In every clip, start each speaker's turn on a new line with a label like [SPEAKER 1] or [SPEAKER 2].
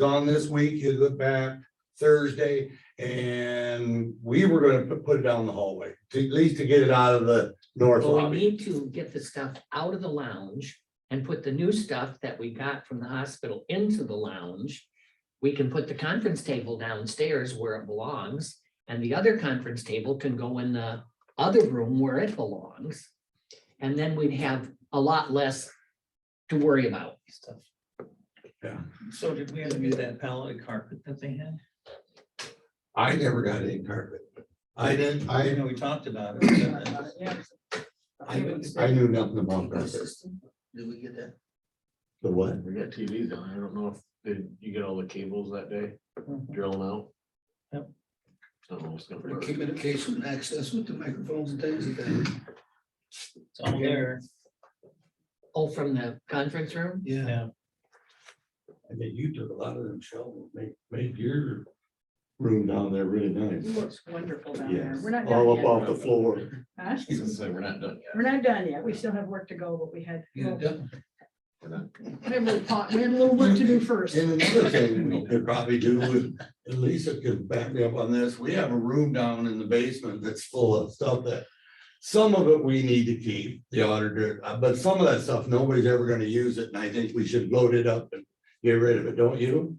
[SPEAKER 1] gone this week, he'll get back Thursday, and we were gonna pu- put it down the hallway, to, at least to get it out of the north
[SPEAKER 2] Well, we
[SPEAKER 1] lobby.
[SPEAKER 2] need to get the stuff out of the lounge and put the new stuff that we got from the hospital into the lounge. We can put the conference table downstairs where it belongs, and the other conference table can go in the other room where it belongs. And then we'd have a lot less to worry about.
[SPEAKER 3] So did we ever do that pallet of carpet that they had?
[SPEAKER 1] I never got any carpet. I didn't,
[SPEAKER 3] I
[SPEAKER 1] I,
[SPEAKER 3] know we talked about it.
[SPEAKER 1] I, I knew nothing about carpet.
[SPEAKER 3] Did we get that?
[SPEAKER 1] The what?
[SPEAKER 4] We got TVs on. I don't know if, did you get all the cables that day drilling out?
[SPEAKER 3] Yep.
[SPEAKER 4] I don't know what's gonna
[SPEAKER 5] For
[SPEAKER 4] work.
[SPEAKER 5] communication access with the microphones and things like that.
[SPEAKER 3] It's all there.
[SPEAKER 2] Oh, from the conference room?
[SPEAKER 5] Yeah.
[SPEAKER 1] I mean, you took a lot of them, Sheldon, made, made your room down there really nice.
[SPEAKER 6] Looks wonderful down there.
[SPEAKER 1] Yes, Oh,
[SPEAKER 6] We're not
[SPEAKER 1] all
[SPEAKER 6] done
[SPEAKER 1] up
[SPEAKER 6] yet.
[SPEAKER 1] off the floor.
[SPEAKER 6] Huh?
[SPEAKER 4] It's like, we're not done
[SPEAKER 6] We're not done yet. We still have work to go, but we had,
[SPEAKER 5] Yeah,
[SPEAKER 6] we
[SPEAKER 5] definitely.
[SPEAKER 6] had a little pot- we had a little work to do first.
[SPEAKER 1] And another thing we could probably do, and Lisa could back me up on this, we have a room down in the basement that's full of stuff that. Some of it we need to keep, the auditor, uh, but some of that stuff, nobody's ever gonna use it, and I think we should load it up and get rid of it, don't you?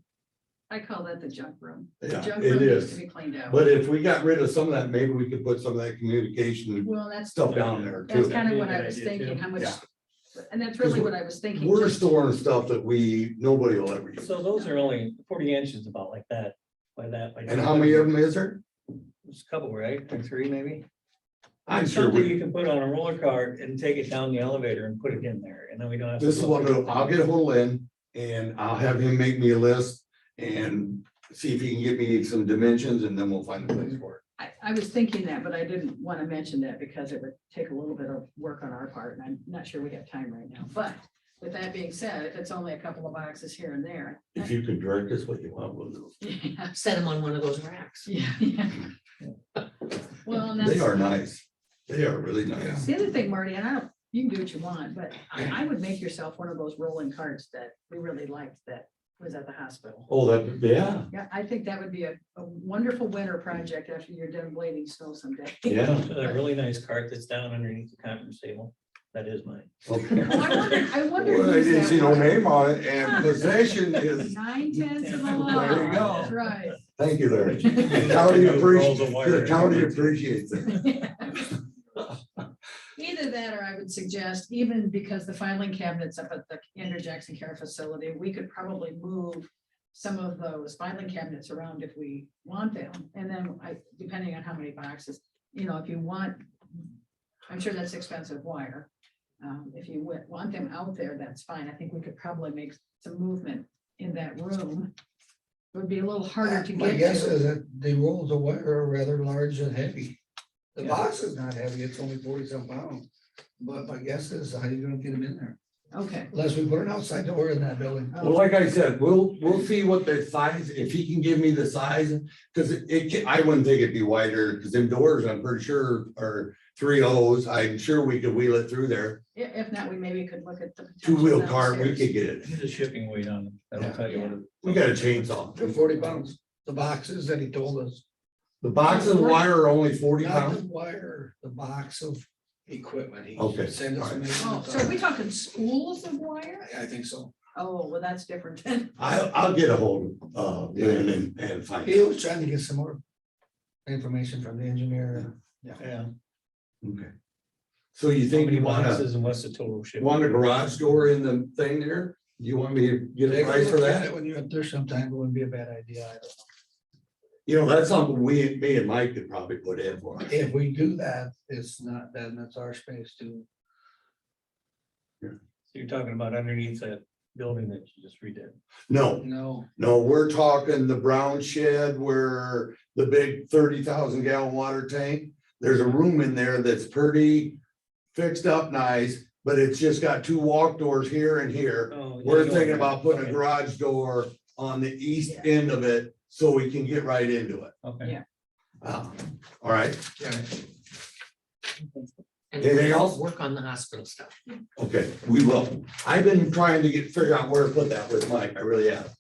[SPEAKER 7] I call that the junk room. The
[SPEAKER 1] Yeah,
[SPEAKER 7] junk
[SPEAKER 1] it
[SPEAKER 7] room needs to
[SPEAKER 1] is,
[SPEAKER 7] be cleaned out.
[SPEAKER 1] but if we got rid of some of that, maybe we could put some of that communication
[SPEAKER 7] Well, that's,
[SPEAKER 1] stuff down there
[SPEAKER 7] that's
[SPEAKER 1] too.
[SPEAKER 7] kind of what
[SPEAKER 3] That'd
[SPEAKER 7] I
[SPEAKER 3] be a
[SPEAKER 7] was
[SPEAKER 3] good idea,
[SPEAKER 7] thinking, how much,
[SPEAKER 1] Yeah.
[SPEAKER 7] and that's really what I was thinking.
[SPEAKER 1] We're
[SPEAKER 7] just-
[SPEAKER 1] storing stuff that we, nobody will ever use,
[SPEAKER 3] So those are only forty inches about like that, by that. by-
[SPEAKER 1] and how many of them is there?
[SPEAKER 3] There's a couple, right? Or three maybe?
[SPEAKER 1] I'm sure
[SPEAKER 3] Something
[SPEAKER 1] we.
[SPEAKER 3] you can put on a roller cart and take it down the elevator and put it in there and then we don't have. to
[SPEAKER 1] This is
[SPEAKER 3] look.
[SPEAKER 1] what I'll, do. I'll get ahold of Lynn and I'll have him make me a list and see if he can get me some dimensions and then we'll find a place for
[SPEAKER 7] I, I was thinking that, but I didn't want to mention that because it would take a little bit of work on our part, and I'm not sure we have time right now. But with that being said, if it's only a couple of boxes here and there.
[SPEAKER 1] it. If you can direct us what you want, we'll do.
[SPEAKER 7] Yeah,
[SPEAKER 2] Set them on one of those racks.
[SPEAKER 7] yeah. Well, and
[SPEAKER 1] They
[SPEAKER 7] that's,
[SPEAKER 1] are nice. They are really nice.
[SPEAKER 7] the other thing, Marty, and I don't, you can do what you want, but I I would make yourself one of those rolling carts that we really liked that was at the hospital.
[SPEAKER 1] Oh, that, yeah,
[SPEAKER 7] Yeah, I think that would be a, a wonderful winter project after you're done blading snow someday.
[SPEAKER 1] yeah.
[SPEAKER 3] A really nice cart that's down underneath the conference table. That is mine.
[SPEAKER 1] Okay.
[SPEAKER 7] Oh, I wondered, I wondered.
[SPEAKER 1] Well, I
[SPEAKER 7] who's
[SPEAKER 1] didn't
[SPEAKER 7] that
[SPEAKER 1] see no
[SPEAKER 7] was.
[SPEAKER 1] name on it and possession is,
[SPEAKER 7] Nine tenths of a
[SPEAKER 1] There you
[SPEAKER 7] mile,
[SPEAKER 1] go.
[SPEAKER 7] that's right.
[SPEAKER 1] thank you, Larry. The county appreciates,
[SPEAKER 3] Rolls of wire.
[SPEAKER 1] the county appreciates it.
[SPEAKER 7] Either that, or I would suggest, even because the filing cabinets up at the Andrew Jackson Care Facility, we could probably move some of those filing cabinets around if we want them, and then I, depending on how many boxes, you know, if you want, I'm sure that's expensive wire. Um, if you wa- want them out there, that's fine. I think we could probably make some movement in that room. It Would be a little harder to
[SPEAKER 5] My
[SPEAKER 7] get
[SPEAKER 5] guess
[SPEAKER 7] to.
[SPEAKER 5] is that the rolls of wire are rather large and heavy. The
[SPEAKER 3] Yeah.
[SPEAKER 5] box is not heavy, it's only forty some pounds. But my guess is how you gonna get them in there?
[SPEAKER 7] Okay.
[SPEAKER 5] Unless we put an outside door in that building.
[SPEAKER 1] Well, like I said, we'll, we'll see what the size, if he can give me the size, because it, it ca- I wouldn't think it'd be wider, because them doors, I'm pretty sure, are three O's, I'm sure we could wheel it through there.
[SPEAKER 7] I- If not, we maybe could look at the. potential
[SPEAKER 1] Two-wheel car, we
[SPEAKER 7] downstairs.
[SPEAKER 1] could get it,
[SPEAKER 3] Put a shipping weight on it. That'll tell you what. it-
[SPEAKER 1] we got a chainsaw.
[SPEAKER 5] They're forty pounds, the boxes that he told us.
[SPEAKER 1] The boxes of wire are only forty
[SPEAKER 5] Not the
[SPEAKER 1] pounds,
[SPEAKER 5] wire, the box of equipment. He
[SPEAKER 1] Okay,
[SPEAKER 5] Send us. a
[SPEAKER 1] alright.
[SPEAKER 5] measurement
[SPEAKER 7] Oh, so are we talking spools of wire?
[SPEAKER 5] I I think so.
[SPEAKER 7] Oh, well, that's different then.
[SPEAKER 1] I, I'll get a hold of, uh, Lynn and, and find
[SPEAKER 5] He
[SPEAKER 1] out.
[SPEAKER 5] was trying to get some more information from the engineer.
[SPEAKER 3] Yeah.
[SPEAKER 1] Okay. So you think you
[SPEAKER 3] How many
[SPEAKER 1] wanna,
[SPEAKER 3] boxes And what's the total shipping?
[SPEAKER 1] want a garage door in the thing there? You want me to get a
[SPEAKER 5] Take a
[SPEAKER 1] price for
[SPEAKER 5] look at
[SPEAKER 1] that?
[SPEAKER 5] it When you're up there sometime, it wouldn't be a bad idea. I don't know.
[SPEAKER 1] You know, that's something we, me and Mike could probably put in for. us.
[SPEAKER 5] If we do that, it's not, then that's our space to,
[SPEAKER 3] So You're talking about underneath that building that you just redid.
[SPEAKER 1] No,
[SPEAKER 5] no.
[SPEAKER 1] no, we're talking the brown shed where the big thirty thousand gallon water tank. There's a room in there that's pretty fixed up nice, but it's just got two walk doors here and here. We're thinking about putting a garage door on the east
[SPEAKER 7] Yeah.
[SPEAKER 1] end of it so we can get right into it.
[SPEAKER 3] Okay.
[SPEAKER 1] Um, All right,
[SPEAKER 2] And
[SPEAKER 1] Anything else?
[SPEAKER 2] Work on the hospital stuff.
[SPEAKER 1] okay, we will. I've been trying to get, figure out where to put that with Mike, I really have.